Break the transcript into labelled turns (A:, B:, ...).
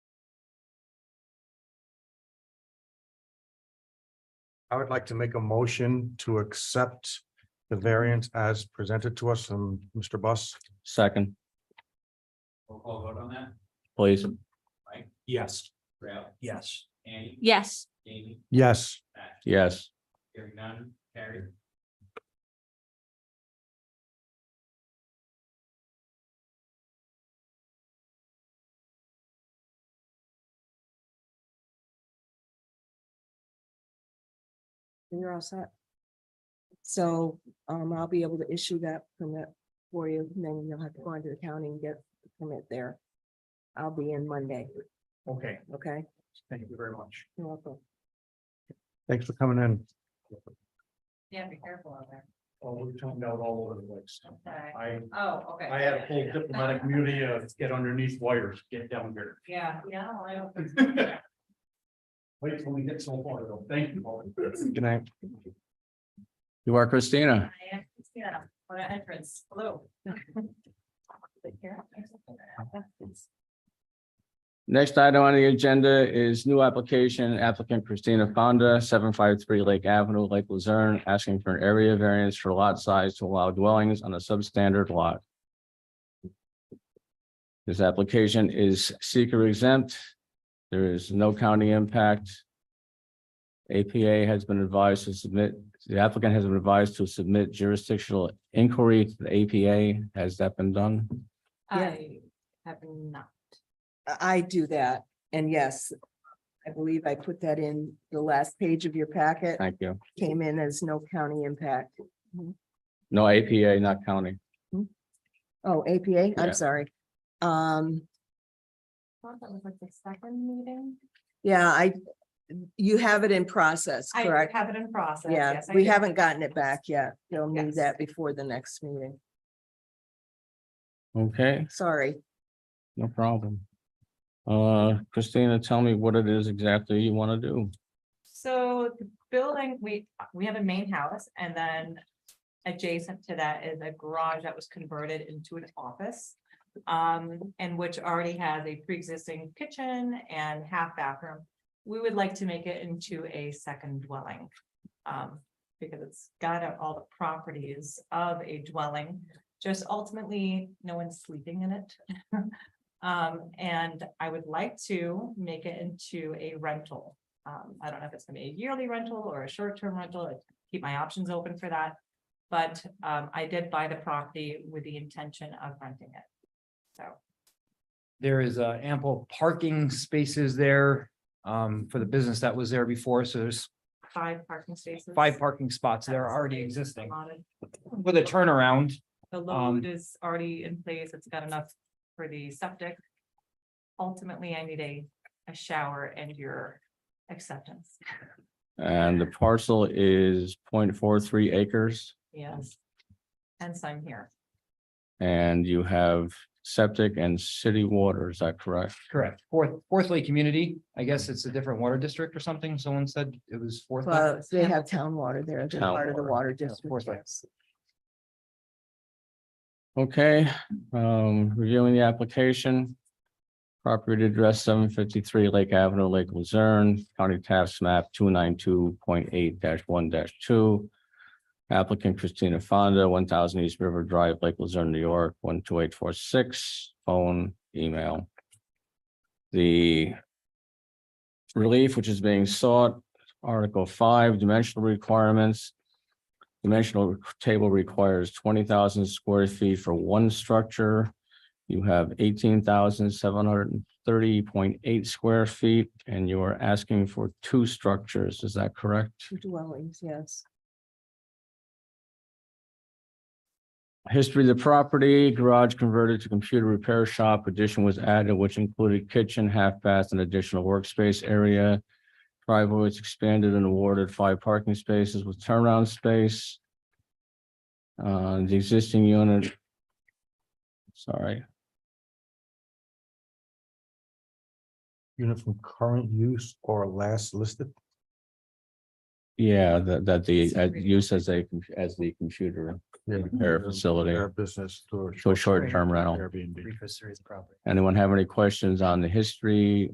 A: I would like to make a motion to accept the variance as presented to us from Mr. Bus.
B: Second,
C: Roll call vote on that?
B: please.
D: Yes.
C: Rail,
D: Yes.
C: Annie,
E: yes,
C: Jamie,
A: Yes,
C: Matt,
B: Yes.
C: hearing none, carried.
F: You're all set. So um I'll be able to issue that permit for you, and then you'll have to go into the county and get the permit there. I'll be in Monday,
D: Okay,
F: okay?
D: thank you very much.
F: You're welcome.
A: thanks for coming in.
G: Yeah, be careful out there.
D: Oh, we're talking out all over the place.
G: Okay.
D: I,
G: Oh, okay.
D: I had a whole
G: Yeah,
D: diplomatic immunity of get underneath wires, get down here.
G: Yeah, yeah, no, I don't.
D: Wait till we get so far though. Thank you. all.
A: Good night.
B: You are Christina.
G: I am, Yeah, what an entrance, hello.
B: Next item on the agenda is new application applicant Christina Fonda, seven five three Lake Avenue, Lake Luzerne, asking for an area variance for lot size to allow dwellings on a substandard lot. This application is seeker exempt. There is no county impact. APA has been advised to submit, the applicant has been advised to submit jurisdictional inquiry to the APA. Has that been done?
G: I have not.
F: I I do that, and yes, I believe I put that in the last page of your packet,
B: Thank you.
F: came in as no county impact.
B: No APA, not county.
F: Oh, APA,
B: Yeah.
F: I'm sorry. Um,
G: Thought that was like the second meeting.
F: yeah, I, you have it in process,
G: I
F: correct?
G: have it in process.
F: Yeah,
G: yes, I
F: we
G: do.
F: haven't gotten it back yet. They'll need
G: Yes.
F: that before the next meeting.
B: Okay,
F: Sorry.
B: no problem. Uh, Christina, tell me what it is exactly you want to do.
G: So the building, we, we have a main house and then adjacent to that is a garage that was converted into an office. Um, and which already has a pre-existing kitchen and half bathroom. We would like to make it into a second dwelling. Um, because it's got all the properties of a dwelling, just ultimately, no one's sleeping in it. Um, and I would like to make it into a rental. Um, I don't know if it's gonna be a yearly rental or a short-term rental, I keep my options open for that. But, um, I did buy the property with the intention of renting it. So,
H: There is uh, ample parking spaces there um, for the business that was there before. So there's
G: five parking spaces.
H: five parking spots that are
G: That's
H: already
G: already
H: existing
G: allotted.
H: with a turnaround.
G: The load
H: Um,
G: is already in place, it's got enough for the septic. Ultimately, I need a, a shower and your acceptance,
B: And the parcel is 0.43 acres
G: yes. Hence, I'm here,
B: and you have septic and city water, is that correct?
H: Correct. Fourth, Fourth Lake Community, I guess it's a different water district or something. Someone said it was Fourth. Lake.
F: Well, they have town water there. They're
B: Town
F: part of the
B: water.
F: water
H: Yeah, Fourth
F: district.
H: Lake.
B: Okay, um, reviewing the application. Property address seven fifty-three Lake Avenue, Lake Luzerne, County Tax Map two nine two point eight one two. Applicant Christina Fonda, one thousand East River Drive, Lake Luzerne, New York, one two eight four six, phone, email. The relief which is being sought, Article five, dimensional requirements. Dimensional table requires twenty thousand square feet for one structure. You have eighteen thousand seven hundred and thirty point eight square feet, and you are asking for two structures, is that correct?
F: Two dwellings, yes.
B: History of the property, garage converted to computer repair shop, addition was added, which included kitchen, half bath, and additional workspace area. Driveway was expanded and awarded five parking spaces with turnaround space. Uh, the existing unit. Sorry,
A: Unit from current use or last listed.
B: yeah, that, that the, uh, use as a, as the computer repair facility,
A: Their business to a
B: so short-term rental.
A: Airbnb.
H: Reefus series property.
B: Anyone have any questions on the history